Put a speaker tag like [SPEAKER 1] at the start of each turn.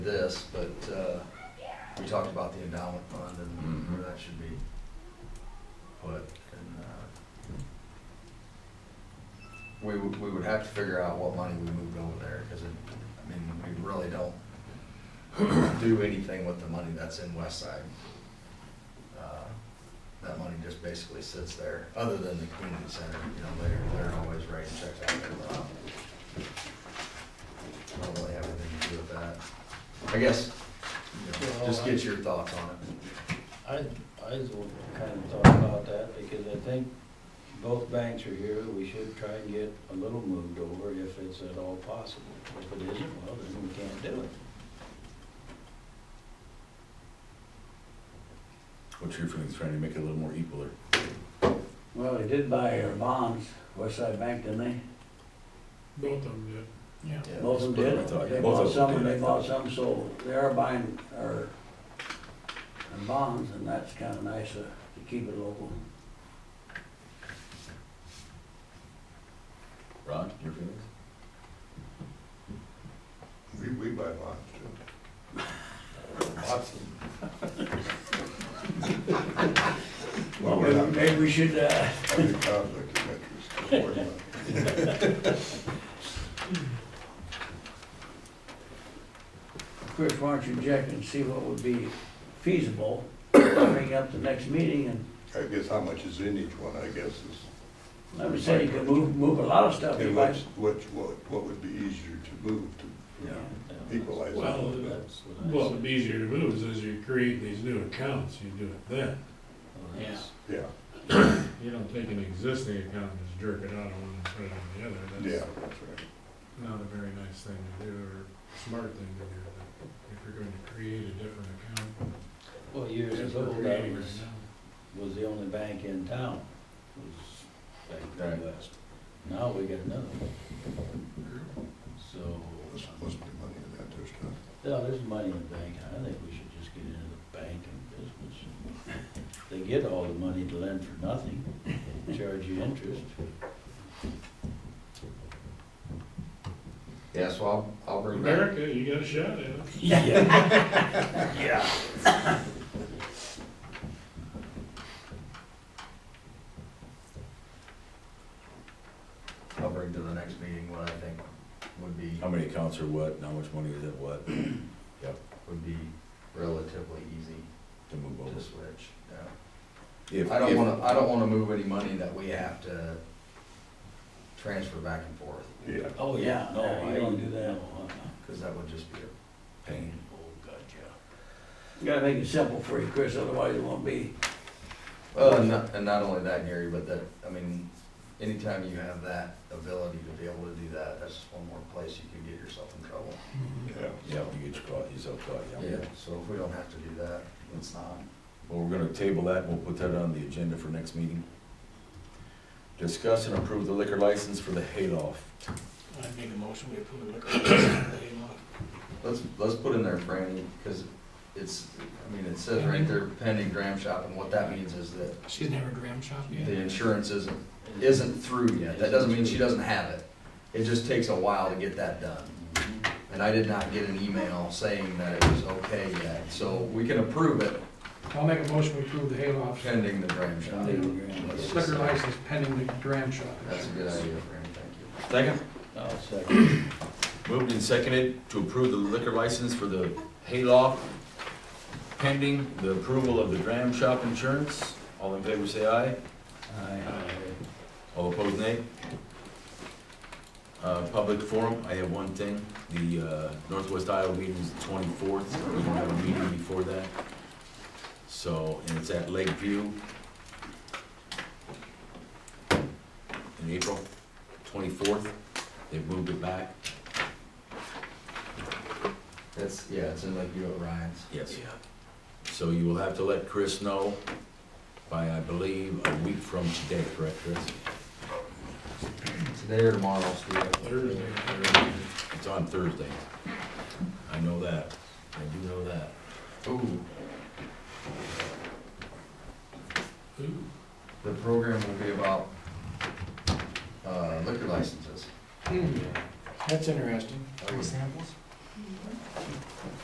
[SPEAKER 1] this, but, uh, we talked about the endowment fund and where that should be put, and, uh, we would, we would have to figure out what money we moved over there, cause it, I mean, we really don't do anything with the money that's in West Side. Uh, That money just basically sits there, other than the community center, you know, they're, they're always writing checks out there, but um, I don't really have anything to do with that. I guess, you know, just get your thoughts on it.
[SPEAKER 2] I, I just want to kind of talk about that because I think both banks are here. We should try and get a little moved over if it's at all possible. If it isn't, well, then we can't do it.
[SPEAKER 3] What's your feelings, trying to make it a little more equal or?
[SPEAKER 4] Well, they did buy our bonds, Westside Bank, didn't they?
[SPEAKER 5] Both of them did.
[SPEAKER 3] Yeah.
[SPEAKER 4] Both of them
[SPEAKER 3] I thought,
[SPEAKER 4] did.
[SPEAKER 3] yeah,
[SPEAKER 4] They
[SPEAKER 3] both
[SPEAKER 4] bought
[SPEAKER 3] of
[SPEAKER 4] some
[SPEAKER 3] them
[SPEAKER 4] and
[SPEAKER 3] did, I
[SPEAKER 4] they bought
[SPEAKER 3] thought.
[SPEAKER 4] some, so they are buying our, our bonds, and that's kinda nice uh, to keep it local.
[SPEAKER 3] Rod, your feelings?
[SPEAKER 6] We, we buy lots too. Lots of. Well, we're
[SPEAKER 4] Maybe
[SPEAKER 6] not
[SPEAKER 4] maybe we should, uh,
[SPEAKER 6] having a conflict of interest. don't worry about it.
[SPEAKER 4] Chris, why don't you check and see what would be feasible, bring up the next meeting, and
[SPEAKER 6] I guess how much is in each one, I guess, is,
[SPEAKER 4] I would say you could move, move a lot of stuff.
[SPEAKER 6] and
[SPEAKER 4] You
[SPEAKER 6] what,
[SPEAKER 4] might-
[SPEAKER 6] what, what, what would be easier to move to equalize? all
[SPEAKER 5] Well,
[SPEAKER 6] of that?
[SPEAKER 2] That's
[SPEAKER 5] Well,
[SPEAKER 2] what I
[SPEAKER 5] it'd be easier to move is as you create these new accounts, you do it then.
[SPEAKER 2] Yeah.
[SPEAKER 6] Yeah,
[SPEAKER 5] You don't take an existing account and just jerk it out of one and put it on the other.
[SPEAKER 6] yeah,
[SPEAKER 5] That's
[SPEAKER 6] that's right.
[SPEAKER 5] not a very nice thing to do or smart thing to do. but If you're going to create a different account,
[SPEAKER 2] Well, years
[SPEAKER 5] as
[SPEAKER 2] ago,
[SPEAKER 5] we're
[SPEAKER 2] that
[SPEAKER 5] creating right
[SPEAKER 2] was,
[SPEAKER 5] now.
[SPEAKER 2] was the only bank in town, was Bank of the
[SPEAKER 3] Right.
[SPEAKER 2] West. Now we got another one, so. uh,
[SPEAKER 6] There's supposed to be money in that, there's not.
[SPEAKER 2] No, there's money in the bank, I think we should just get into the banking business. They get all the money to lend for nothing, charge you interest.
[SPEAKER 1] Yeah, so I'll, I'll bring back.
[SPEAKER 5] America, you got a shot at it.
[SPEAKER 2] Yeah.
[SPEAKER 1] I'll bring to the next meeting what I think would be,
[SPEAKER 3] How many accounts are what, and how much money is at what
[SPEAKER 1] would be relatively easy
[SPEAKER 3] to move over?
[SPEAKER 1] to switch, yeah.
[SPEAKER 3] If-
[SPEAKER 1] I don't
[SPEAKER 3] if-
[SPEAKER 1] wanna, I don't wanna move any money that we have to transfer back and forth,
[SPEAKER 6] Yeah,
[SPEAKER 2] Oh, yeah, no, I don't do that.
[SPEAKER 1] cause that would just be a
[SPEAKER 3] Pain.
[SPEAKER 2] Oh, God, yeah.
[SPEAKER 4] You gotta make it simple for you, Chris, otherwise it won't be.
[SPEAKER 1] Well, and not, and not only that, Gary, but that, I mean, anytime you have that ability to be able to do that, that's just one more place you can get yourself in trouble.
[SPEAKER 6] yeah.
[SPEAKER 3] Yeah, you get caught, yourself caught, yeah.
[SPEAKER 1] Yeah, so if we don't have to do that, let's not.
[SPEAKER 3] Well, we're gonna table that, we'll put that on the agenda for next meeting. Discuss and approve the liquor license for the Hayloft.
[SPEAKER 7] I make a motion, we approve the liquor license for the Hayloft.
[SPEAKER 1] Let's, let's put in there, Franny, because it's, I mean, it says right there pending gram shop, and what that means is that
[SPEAKER 7] She's never gram shop yet.
[SPEAKER 1] the insurance isn't, isn't through yet. That doesn't mean she doesn't have it. It just takes a while to get that done. And I did not get an email saying that it was okay yet, so we can approve it
[SPEAKER 8] I'll make a motion to approve the Hayloft
[SPEAKER 1] pending the gram shop.
[SPEAKER 8] liquor license pending the dram shop.
[SPEAKER 1] That's a good idea, Franny, thank you.
[SPEAKER 3] Second?
[SPEAKER 2] I'll second.
[SPEAKER 3] Moved and seconded to approve the liquor license for the Hayloft pending the approval of the dram shop insurance. All in favor, say aye. All opposed, nay? Uh, Public forum, I have one thing. The uh, Northwest Iowa meeting is the twenty-fourth. We're gonna have a meeting before that. So, and it's at Lakeview in April, twenty-fourth. They've moved it back.
[SPEAKER 1] It's, yeah, it's in Lakeview at Ryan's.
[SPEAKER 3] Yes. So you will have to let Chris know by, I believe, a week from today, correct, Chris?
[SPEAKER 1] Today or tomorrow, Steve?
[SPEAKER 5] Thursday.
[SPEAKER 3] It's on Thursday. I know that. I do know that.
[SPEAKER 1] Ooh,
[SPEAKER 5] Ooh,
[SPEAKER 1] the program will be about, uh, liquor licenses.
[SPEAKER 7] That's interesting.
[SPEAKER 1] Free
[SPEAKER 7] samples?